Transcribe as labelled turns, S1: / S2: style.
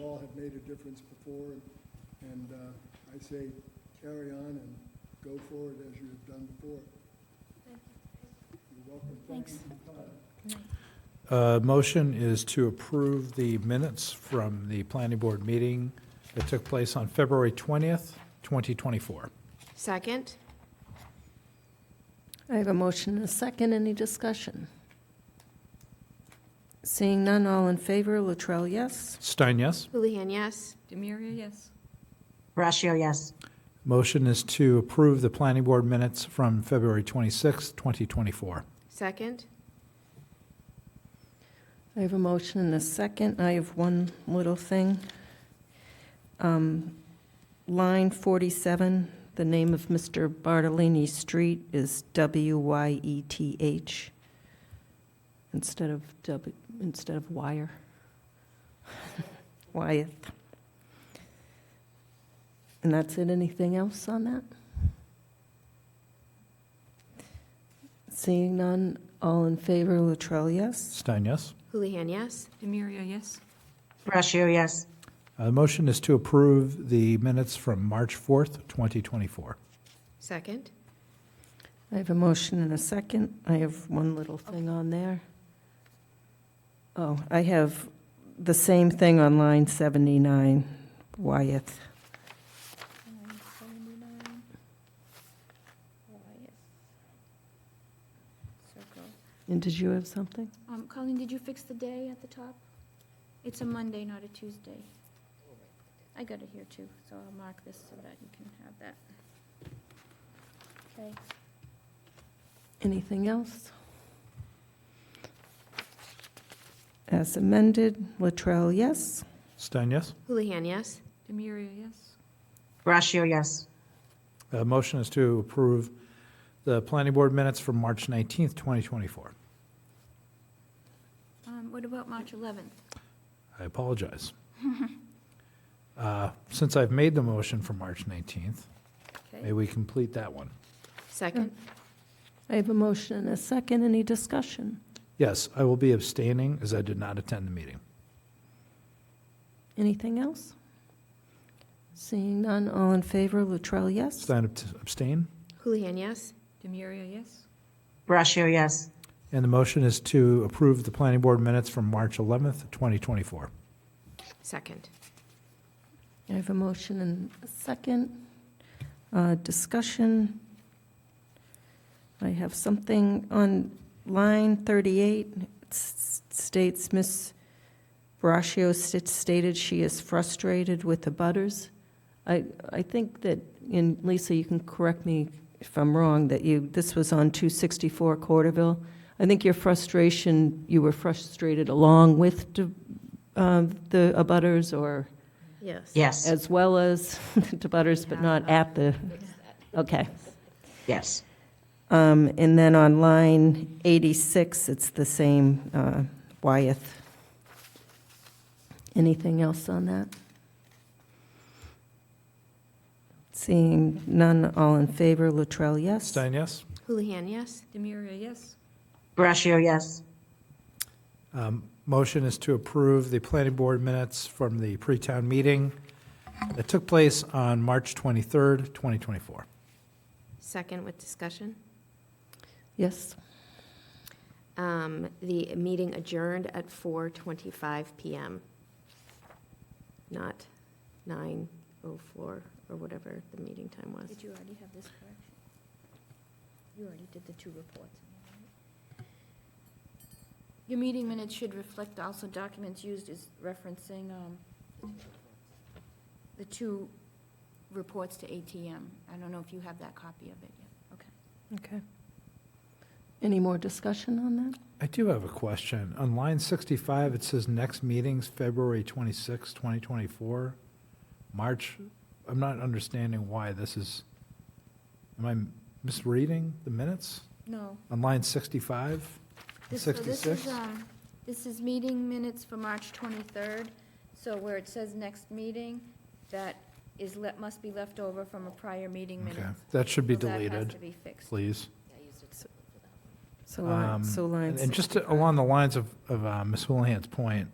S1: all have made a difference before, and- and uh, I say carry on and go forward as you have done before. You're welcome. Thank you
S2: Thanks.
S1: for coming.
S3: Uh, Motion is to approve the minutes from the planning board meeting that took place on February 20th, 2024.
S4: Second?
S5: I have a motion and a second. Any discussion? Seeing none, all in favor, Latrell, yes.
S3: Stein, yes?
S4: Houlihan, yes.
S2: Demiria, yes.
S6: Brashio, yes.
S3: Motion is to approve the planning board minutes from February 26th, 2024.
S4: Second?
S5: I have a motion and a second. I have one little thing. Um, Line 47, the name of Mr. Bartolini Street is W-Y-E-T-H instead of W, instead of wire. Wyeth. And that's it. Anything else on that? Seeing none, all in favor, Latrell, yes?
S3: Stein, yes?
S4: Houlihan, yes.
S2: Demiria, yes.
S6: Brashio, yes.
S3: Uh, Motion is to approve the minutes from March 4th, 2024.
S4: Second?
S5: I have a motion and a second. I have one little thing on there. Oh, I have the same thing on line 79, Wyeth. And did you have something?
S2: Um, Colleen, did you fix the day at the top? It's a Monday, not a Tuesday. I got it here too, so I'll mark this so that you can have that. Okay.
S5: Anything else? As amended, Latrell, yes?
S3: Stein, yes?
S4: Houlihan, yes.
S2: Demiria, yes.
S6: Brashio, yes.
S3: Uh, Motion is to approve the planning board minutes from March 19th, 2024.
S2: Um, what about March 11th?
S3: I apologize. Uh, Since I've made the motion for March 19th, may we complete that one?
S4: Second?
S5: I have a motion and a second. Any discussion?
S3: Yes, I will be abstaining as I did not attend the meeting.
S5: Anything else? Seeing none, all in favor, Latrell, yes?
S3: Stein abst- abstain,
S4: Houlihan, yes.
S2: Demiria, yes.
S6: Brashio, yes.
S3: and the motion is to approve the planning board minutes from March 11th, 2024.
S4: Second?
S5: I have a motion and a second. Uh, Discussion. I have something on line 38. It s- states, Ms. Braccio st- stated she is frustrated with the butters. I, I think that, and Lisa, you can correct me if I'm wrong, that you, this was on 264 Corderville. I think your frustration, you were frustrated along with the- uh, the abutters or?
S4: Yes.
S6: Yes,
S5: As well as to Butters, but not at the, okay.
S6: yes.
S5: Um, And then on line 86, it's the same uh, Wyeth. Anything else on that? Seeing none, all in favor, Latrell, yes?
S3: Stein, yes?
S4: Houlihan, yes.
S2: Demiria, yes.
S6: Brashio, yes.
S3: Um, Motion is to approve the planning board minutes from the pre-town meeting that took place on March 23rd, 2024.
S4: Second with discussion.
S5: Yes,
S4: Um, The meeting adjourned at 4:25 PM, not 9:04 or whatever the meeting time was.
S2: Did you already have this correction? You already did the two reports. Your meeting minutes should reflect also documents used as referencing um, the two reports to ATM. I don't know if you have that copy of it yet. Okay.
S5: okay. Any more discussion on that?
S3: I do have a question. On line 65, it says next meeting's February 26, 2024. March, I'm not understanding why this is, am I misreading the minutes?
S2: No.
S3: On line 65,
S2: This- so this is,
S3: 66?
S2: um, This is meeting minutes for March 23rd, so where it says next meeting, that is, le- must be left over from a prior meeting
S3: Okay,
S2: minutes.
S3: that should be
S2: So that has to
S3: deleted,
S2: be fixed.
S3: please.
S5: So, li-
S3: Um,
S5: so line
S3: And and just
S5: 65.
S3: along the lines of, of uh, Ms. uh, Houlihan's point,